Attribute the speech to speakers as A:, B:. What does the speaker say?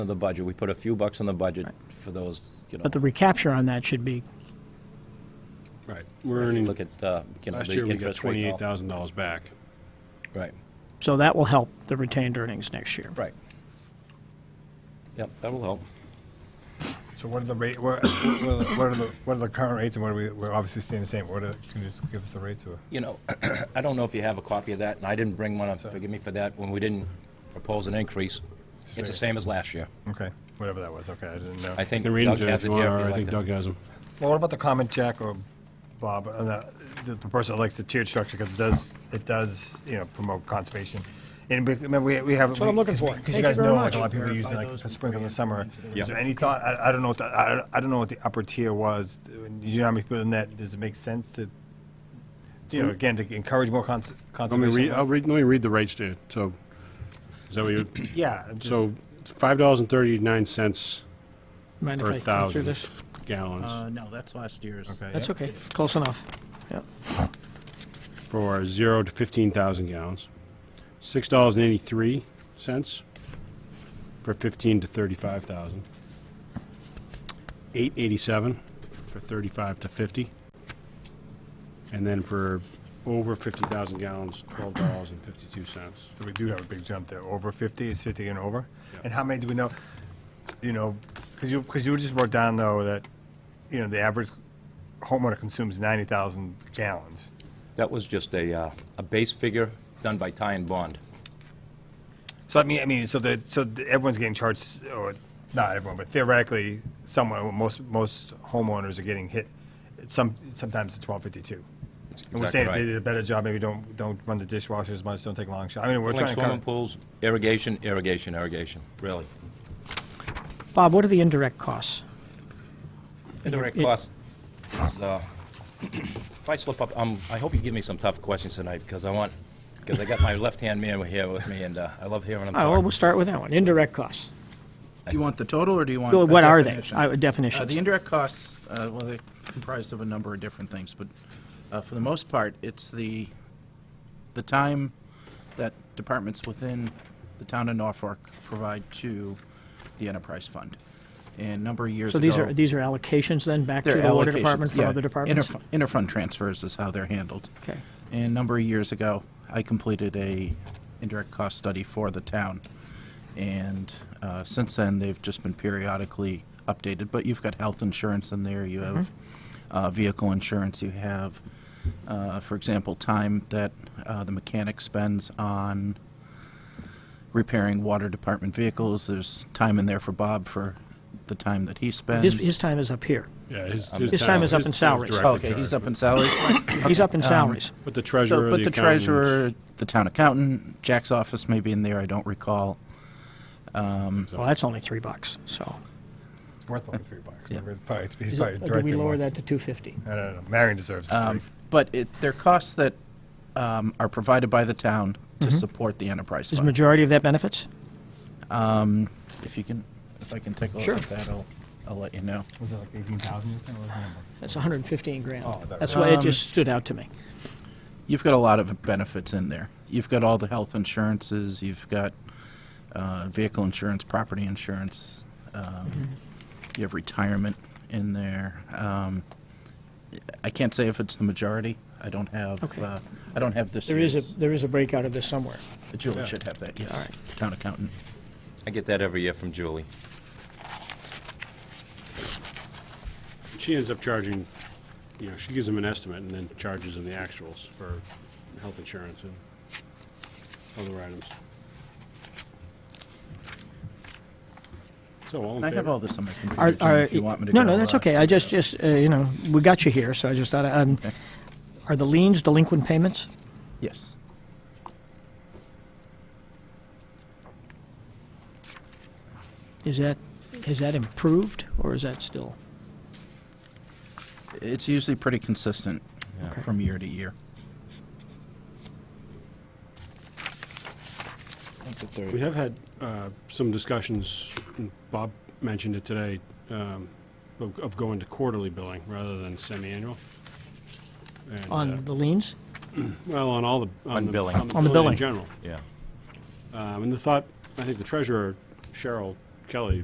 A: of the budget. We put a few bucks on the budget for those, you know,
B: But the recapture on that should be,
C: Right, we're earning,
A: look at, uh, you know,
C: last
A: the
C: year we got
A: interest rate.
C: twenty-eight
A: and all.
C: thousand dollars back.
A: Right,
B: so that will help the retained earnings next year.
A: right. Yep, that'll help.
D: So what are the rate, what what are the, what are the, what are the current rates and what are we, we're obviously staying the same. What are, can you just give us the rates or?
A: You know, I don't know if you have a copy of that, and I didn't bring one, up. forgive me for that, when we didn't propose an increase. It's the
D: Sure.
A: same as last year.
D: Okay, whatever that was, okay, I didn't know.
A: I think
C: You can read them,
A: Doug
C: Jim,
A: has
C: if
A: it
C: you
A: here
C: want,
A: if you'd
C: or I
A: like
C: think
A: to.
C: Doug has them.
D: Well, what about the comment, Jack or Bob, on the, the the person that likes the tiered structure, because it does, it does, you know, promote conservation. And we- remember, we, we have. That's
B: what I'm looking for.
D: Because
B: Thank you
D: you guys
B: very
D: know, like,
B: much.
D: a lot of people use
E: Verify
D: like
E: those
D: for
E: and
D: sprinkles in
E: bring
D: the
E: it
D: summer.
E: into
A: Yeah.
D: Is there any thought, I, I don't know what, the- I, I don't know what the upper tier was. You know how many people in that, does it make sense to, you know, again, to encourage more cons-
C: Let me
D: conservation?
C: read, oh. I'll read, let me read the rates to you, so, is that what you,
D: Yeah. I'm just-
C: so, five dollars and thirty-nine cents
B: Mind if
C: per
B: I go through
C: thousand
B: this?
C: gallons
E: Uh, no, that's last year's.
D: Okay,
B: That's
D: yeah.
B: okay, close enough. Yep.
C: for zero to fifteen thousand gallons. Six dollars and eighty-three cents for fifteen to thirty-five thousand. Eight eighty-seven for thirty-five to fifty. And then for over fifty thousand gallons, twelve dollars and fifty-two cents.
D: So we do have a big jump there, over 50, it's 50 and over?
C: Yeah.
D: And how many do we know, you know, because you, because you just wrote down, though, that, you know, the average homeowner consumes 90,000 gallons.
A: That was just a, uh, a base figure done by Ty and Bond.
D: So I mean, I mean, so the, so the- everyone's getting charged, or not everyone, but theoretically, someone, most, most homeowners are getting hit, some, sometimes it's 1252. And we're
A: exactly
D: saying if
A: right.
D: they did a better job, maybe don't, don't run the dishwasher as much, don't take long showers. I mean, we're
A: Like
D: trying to
A: swimming
D: cover,
A: pools, irrigation, irrigation, irrigation, really.
B: Bob, what are the indirect costs?
A: Indirect
B: it-
A: costs. uh, If I slip up, um, I hope you give me some tough questions tonight, because I want, because I got my left-hand man here with me, and uh, I love hearing him
B: Oh, well,
A: talk.
B: we'll start with that one, indirect costs.
E: Do you want the total, or do you want?
B: Well,
E: a
B: What are they?
E: definition?
B: Uh,
E: Uh,
B: Definitions.
E: The indirect costs, uh, well, they're comprised of a number of different things, but uh, for the most part, it's the, the time that departments within the town of Norfolk provide to the enterprise fund. And a number of years
B: So
E: ago.
B: these are, these are allocations then, back to
E: They're
B: the water
E: allocations,
B: department for
E: yeah.
B: other departments?
E: Interfu- Interfund transfers is how they're handled.
B: Okay.
E: And a number of years ago, I completed a indirect cost study for the town. And uh, since then, they've just been periodically updated. But you've got health insurance in there, you have
B: Mm-hmm.
E: uh, vehicle insurance, you have, uh, for example, time that uh, the mechanic spends on repairing water department vehicles. There's time in there for Bob for the time that he spends.
B: His, his time is up here.
C: Yeah, his,
B: His time is up in
C: his
B: salaries.
C: directly
E: Oh, Okay, he's
C: charged.
E: up in salaries.
B: He's up
E: um,
B: in salaries.
C: But the
E: So,
C: treasurer, the
E: but the
C: accountants-
E: treasurer, the town accountant, Jack's office may be in there, I don't recall.
B: Well, that's only three bucks, so.
D: it's worth like three bucks.
E: Yeah.
D: It's probably- it's
B: Is it-
D: probably
B: uh, Do we
D: directly
B: lower
D: more.
B: that to 250?
D: I don't know, Marion deserves the three.
E: Um, But it, they're costs that um, are provided by the town to support the enterprise
B: Mm-hmm. Is the
E: fund.
B: majority of that benefits?
E: If you can, if I can take a look
B: Sure.
E: at that, I'll, I'll let you know.
D: Was it like eighteen thousand?
B: That's 115 grand.
D: Oh, that-
B: That's why it just stood out to me.
E: You've got a lot of benefits in there. You've got all the health insurances, you've got uh, vehicle insurance, property insurance,
B: Mm-hmm.
E: um, you have retirement in there. Um, I can't say if it's the majority. I don't have,
B: Okay.
E: uh, I don't have this.
B: There is
E: year's.
B: a, there is a breakout of this somewhere.
E: Julie should have that, yes.
B: right.
E: Town accountant.
A: I get that every year from Julie.
C: She ends up charging, you know, she gives them an estimate and then charges them the actuals for health insurance and other items. So all in
E: And I have
C: favor?
E: all this on my computer,
B: Are-
E: Jim,
B: are-
E: if you want me to
B: No,
E: go,
B: no, that's
E: uh,
B: okay. I just, just, uh, you know, we got you here, so I just thought, um, are the liens delinquent payments?
E: Yes.
B: Is that, is that improved, or is that still?
E: It's usually pretty consistent
B: Okay.
E: from year to year.
C: We have had uh, some discussions, and Bob mentioned it today, um, of of going to quarterly billing rather than semi-annual. And, uh,
B: On the liens?
C: Well, on all the.
A: On
C: the-
A: billing.
C: On the
B: On the
C: billing in
B: billing.
C: general.
A: Yeah.
C: Um, And the thought, I think the treasurer, Cheryl, Kelly